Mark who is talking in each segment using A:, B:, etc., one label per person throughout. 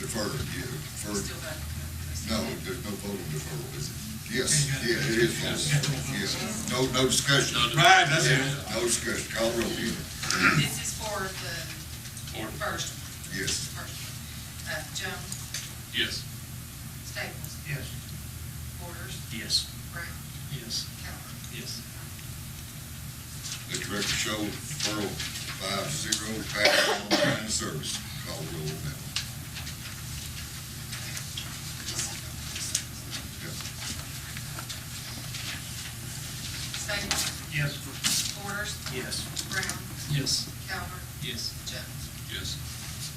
A: Deferred, yeah, deferred.
B: Still back.
A: No, there's no vote on deferral, is it? Yes, yeah, it is vote, yes. No, no discussion.
C: Right, that's it.
A: Yeah, No discussion, call roll, yeah.
B: This is for the first,
A: yes.
B: first. Uh, Jones,
D: Yes.
B: Staples,
C: Yes.
B: Borders,
D: Yes.
B: Brown,
D: Yes.
B: Calvert.
D: Yes.
A: Let the record show, Pearl, five zero, pass on line of service. Call roll on that one.
B: Staples,
C: Yes.
B: Borders,
D: Yes.
B: Brown,
D: Yes.
B: Calvert,
D: Yes.
B: Jones.
D: Yes.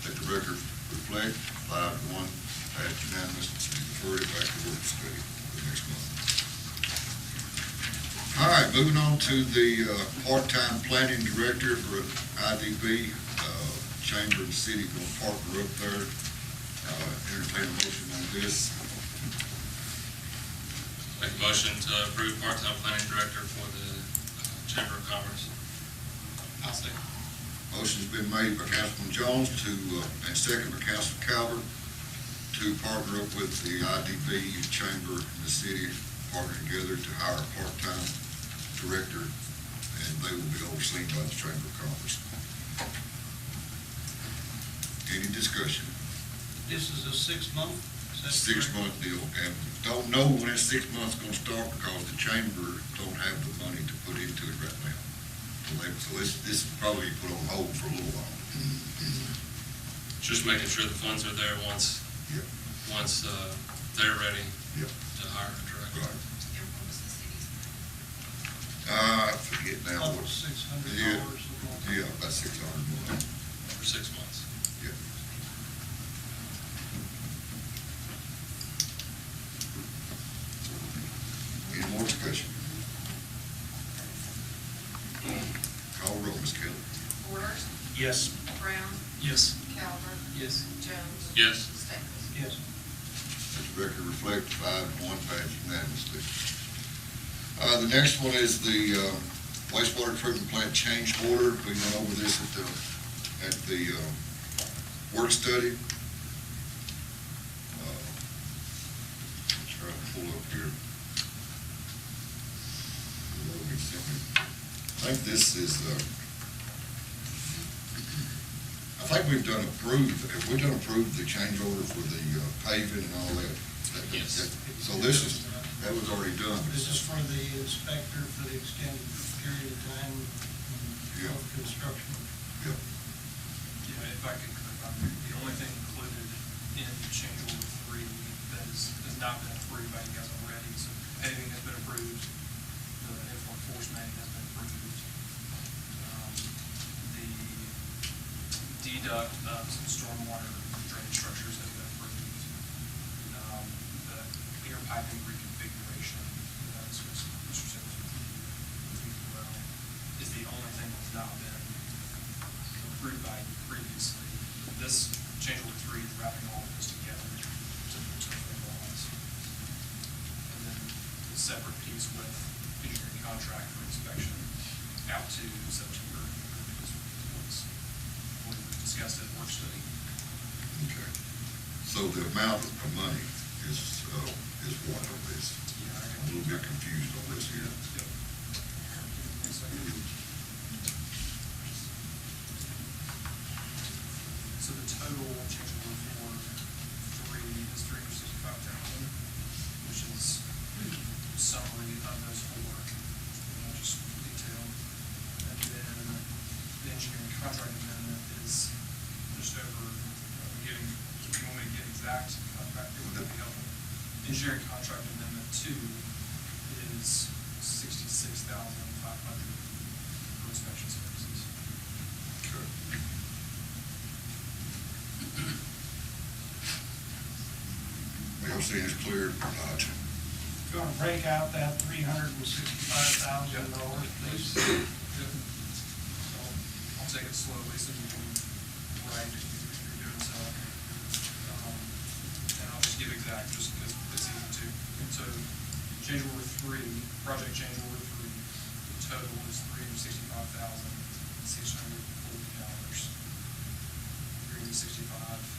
A: Let the record reflect, five to one, pass unanimous, and refer it back to work study for the next month. All right, moving on to the uh, part-time planning director for IDB, uh, Chamber and City, gonna partner up there. Uh, Entertain a motion on this.
E: Make a motion to approve part-time planning director for the uh, Chamber of Commerce. I'll second.
A: Motion's been made by Councilman Jones to, uh, and second by Councilman Calvert, to partner up with the IDB Chamber and the city, partner together to hire a part-time director, and they will be overseen by the Chamber of Commerce. Any discussion?
C: This is a six-month?
A: Six-month deal, and don't know when that six months gonna start because the chamber don't have the money to put into it right now. So they- So this, this is probably put on hold for a little while.
E: Just making sure the funds are there once,
A: Yep.
E: once uh, they're ready
A: Yep.
E: to hire a director.
A: Right.
B: And what was the city's?
A: Uh, I forget now.
C: About
A: what-
C: six hundred
A: Yeah.
C: dollars a month.
A: Yeah, about six hundred more.
E: For six months.
A: Yeah. Any more discussion? Call roll, Ms. Kelly.
B: Borders,
D: Yes.
B: Brown,
D: Yes.
B: Calvert,
D: Yes.
B: Jones.
E: Yes.
B: Staples.
C: Yes.
A: Let the record reflect five to one pass unanimously. Uh, the next one is the uh, wastewater treatment plant change order. We went over this at the, at the, uh, work study. Uh, I'm Trying to pull up here. Hold on a second. I think this is, uh, I think we've done approved, have we done approved the change order for the uh, paving and all that? That- that-
E: Yes.
A: So this is, that was already done.
C: This is for the inspector for the extended period of time
A: Yeah.
C: of construction.
A: Yep.
F: Yeah, if I could, clarify, the only thing included in change order three that is, has not been approved by you guys already, so paving has been approved, the F-1 force main has been approved. Um, The deduct of some stormwater drainage structures has been approved. Um, The air piping reconfiguration, uh, so it's, Mr. Simmons, as well, is the only thing that's not been approved by you previously. This change order three is wrapping all of this together to to formalize. And then the separate piece with engineering contract for inspection out to September. is what's- We discussed it at work study.
A: Okay. So the amount of money is, uh, is what of this?
F: Yeah, I
A: I'm a little bit confused on this here.
F: Yep. Thanks, I- So the total change order for three is three hundred sixty-five thousand, which is summary of those four, uh, just detail. And then the engineering contract amendment is just over, uh, getting, if you want me to get exact contract, it would be helpful. Engineering contract amendment two is sixty-six thousand five hundred for inspection services.
A: Okay. LC is clear, not.
C: Going to break out that three hundred and sixty-five thousand dollars, please.
F: I'll- I'll take it slowly so you can write if you're doing so. Um, And I'll just give exact, just because it's easy to. So change order three, project change order three, the total is three hundred sixty-five thousand, six hundred forty dollars. Three hundred sixty-five